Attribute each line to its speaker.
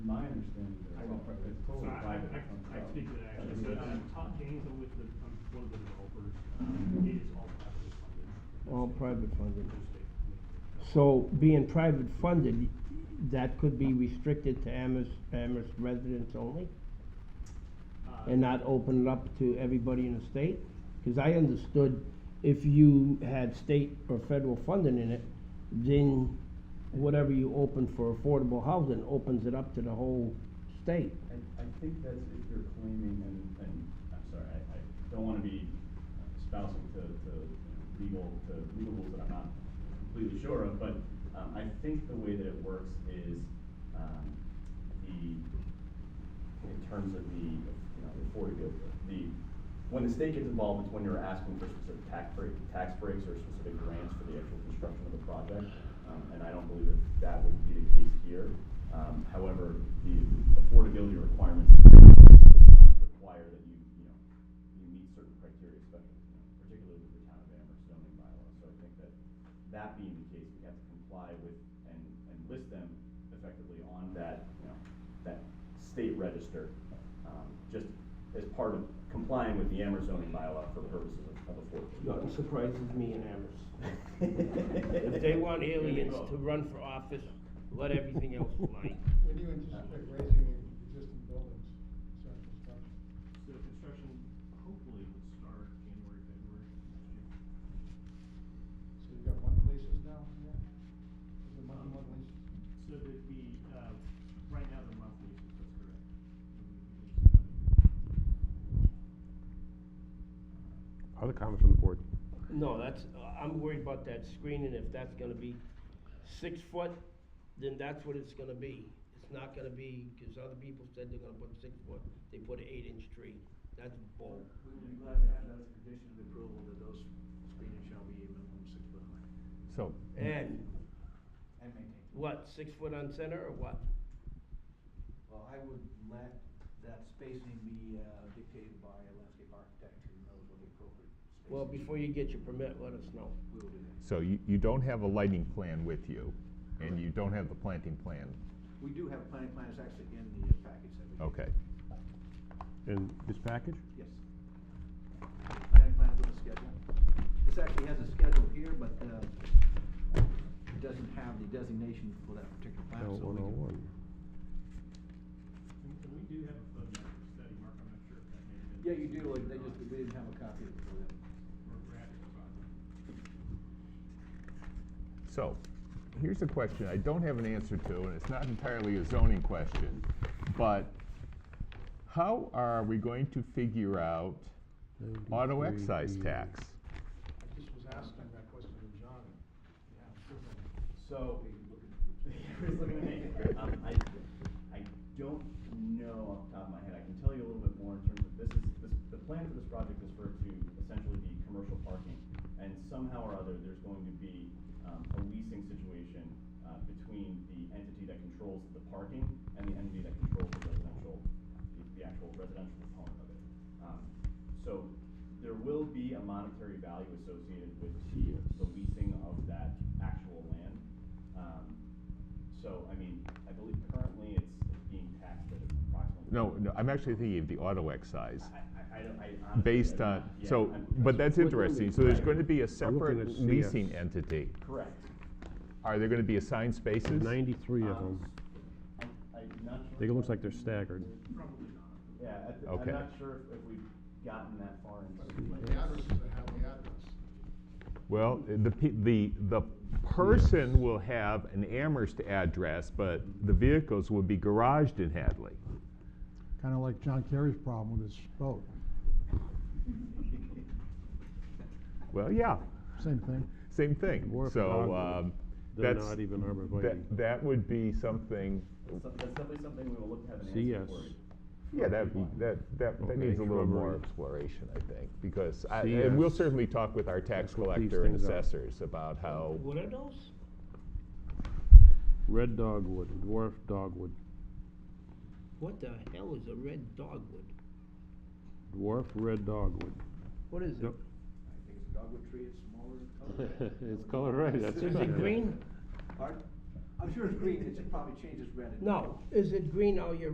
Speaker 1: it's
Speaker 2: So
Speaker 1: totally
Speaker 2: I, I,
Speaker 1: private. Uh,
Speaker 2: I I can speak to that actually, so um, I'm Todd James, I'm with the, I'm one of the developers, um, it is all privately funded. Uh,
Speaker 3: All private funded.
Speaker 2: No state.
Speaker 3: So being private funded, that could be restricted to Amherst, Amherst residents only?
Speaker 2: Uh,
Speaker 3: and not open it up to everybody in the state? Because I understood if you had state or federal funding in it, then whatever you open for affordable housing opens it up to the whole state.
Speaker 1: I, I think that's if you're claiming, and, and, I'm sorry, I, I don't wanna be spousing to, to you know, legal, to legal rules that I'm not completely sure of, but, um, I think the way that it works is, um, the, in terms of the, you know, the affordability, the, when the state gets involved, it's when you're asking for specific tax break, tax breaks or specific grants for the actual construction of the project. Um, and I don't believe that that would be the case here. Um, however, the affordability requirements um, require that you, you know, you meet certain criteria, especially, you know, particularly with the town of Amherst zoning bylaw. So I think that, that being the case, we have to comply with and, and list them effectively on that, you know, that state register, um, just as part of complying with the Amherst zoning bylaw for purposes of- of affordable.
Speaker 3: Nothing surprises me in Amherst. If
Speaker 1: If
Speaker 3: they want aliens to run for office, let everything else fly.
Speaker 4: When do you anticipate raising the existing buildings, start construction?
Speaker 2: So construction hopefully would start January, February.
Speaker 4: So you've got month leases now, yeah? Is it month, month leases?
Speaker 2: Um, So that'd be, uh, right now the monthly, is- that's correct.
Speaker 5: Other comments from the board?
Speaker 3: No, that's, I'm worried about that screening, if that's gonna be six foot, then that's what it's gonna be. It's not gonna be, cause other people said they're gonna put six foot, they put an eight inch tree, that's bull.
Speaker 6: We would be glad to have that as a condition of approval, that those screenings shall be a minimum six foot high.
Speaker 5: So,
Speaker 3: And,
Speaker 6: And maintain.
Speaker 3: what, six foot on center or what?
Speaker 6: Well, I would let that spacing be uh, dictated by a landscape architect who knows what the appropriate spacing is.
Speaker 3: Well, before you get your permit, let us know.
Speaker 6: We will do that.
Speaker 7: So you, you don't have a lighting plan with you, and you don't have the planting plan,
Speaker 6: We do have a planning plan, it's actually in the package that we. gave.
Speaker 7: okay.
Speaker 5: in this package?
Speaker 6: Yes. Planning plan with a schedule. This actually has a schedule here, but uh, it doesn't have the designation for that particular plan, so we
Speaker 5: oh
Speaker 6: can.
Speaker 2: And and we do have a photometric study, Mark, I'm not sure if that may have been.
Speaker 6: Yeah, you do, like, they just, we didn't have a copy of it for them.
Speaker 2: Or perhaps it's on.
Speaker 7: So, here's a question I don't have an answer to, and it's not entirely a zoning question, but how are we going to figure out auto excise tax?
Speaker 4: I just was asking that question to John. Yeah, certainly.
Speaker 1: So, Everybody's looking at me. Um, I, I don't know off the top of my head, I can tell you a little bit more in terms of, this is, this, the plan for this project is for it to essentially be commercial parking. And somehow or other, there's going to be, um, a leasing situation, uh, between the entity that controls the parking and the entity that controls the residential, the, the actual residential component of it. Um, so there will be a monetary value associated with the, the leasing of that actual land. Um, so, I mean, I believe currently it's it's being taxed at approximately.
Speaker 7: No, no, I'm actually thinking of the auto excise.
Speaker 1: I, I, I don't, I honestly.
Speaker 7: Based
Speaker 1: I'm
Speaker 7: on,
Speaker 1: not- yeah,
Speaker 7: so,
Speaker 1: I'm-
Speaker 7: but that's interesting, so there's going to be a
Speaker 5: I'm looking
Speaker 7: separate
Speaker 5: at CS.
Speaker 7: leasing entity.
Speaker 1: Correct.
Speaker 7: Are there going to be assigned spaces?
Speaker 5: Ninety-three
Speaker 1: Um,
Speaker 5: of them.
Speaker 1: I- I'm not sure.
Speaker 5: I think it looks like they're staggered.
Speaker 2: Probably not.
Speaker 1: Yeah, I th-
Speaker 7: Okay.
Speaker 1: I'm not sure if, if we've gotten that far
Speaker 4: But
Speaker 1: into.
Speaker 4: but the addresses that have the address.
Speaker 7: Well, the, pe- the, the person will have an Amherst address, but the vehicles will be garaged in Hadley.
Speaker 8: kind of like John Kerry's problem with his boat.
Speaker 7: Well, yeah,
Speaker 8: Same thing.
Speaker 7: same thing.
Speaker 5: Or if
Speaker 7: So,
Speaker 5: not,
Speaker 7: um,
Speaker 5: They're
Speaker 7: that's,
Speaker 5: not even
Speaker 7: that,
Speaker 5: arborvitae.
Speaker 7: that would be something,
Speaker 1: That's some- that's definitely something we will look to have an answer
Speaker 5: CS.
Speaker 1: for. you.
Speaker 7: yeah, that'd be, that, that, that
Speaker 5: Okay,
Speaker 7: needs a little more
Speaker 5: shrubbery.
Speaker 7: exploration, I think, because I, and we'll
Speaker 5: CS.
Speaker 7: certainly talk with our tax
Speaker 5: That's what these
Speaker 7: collector and
Speaker 5: things are.
Speaker 7: assessors about how,
Speaker 3: What are those?
Speaker 5: Red dogwood, dwarf dogwood,
Speaker 3: What the hell is a red dogwood?
Speaker 5: dwarf red dogwood.
Speaker 3: What is it?
Speaker 5: Yep.
Speaker 6: I think it's a dogwood tree, it's smaller in color.
Speaker 5: It's color red, that's
Speaker 3: Is it green?
Speaker 6: Pardon? I'm sure it's green, it should probably change its red.
Speaker 3: No, is it green Oh, all year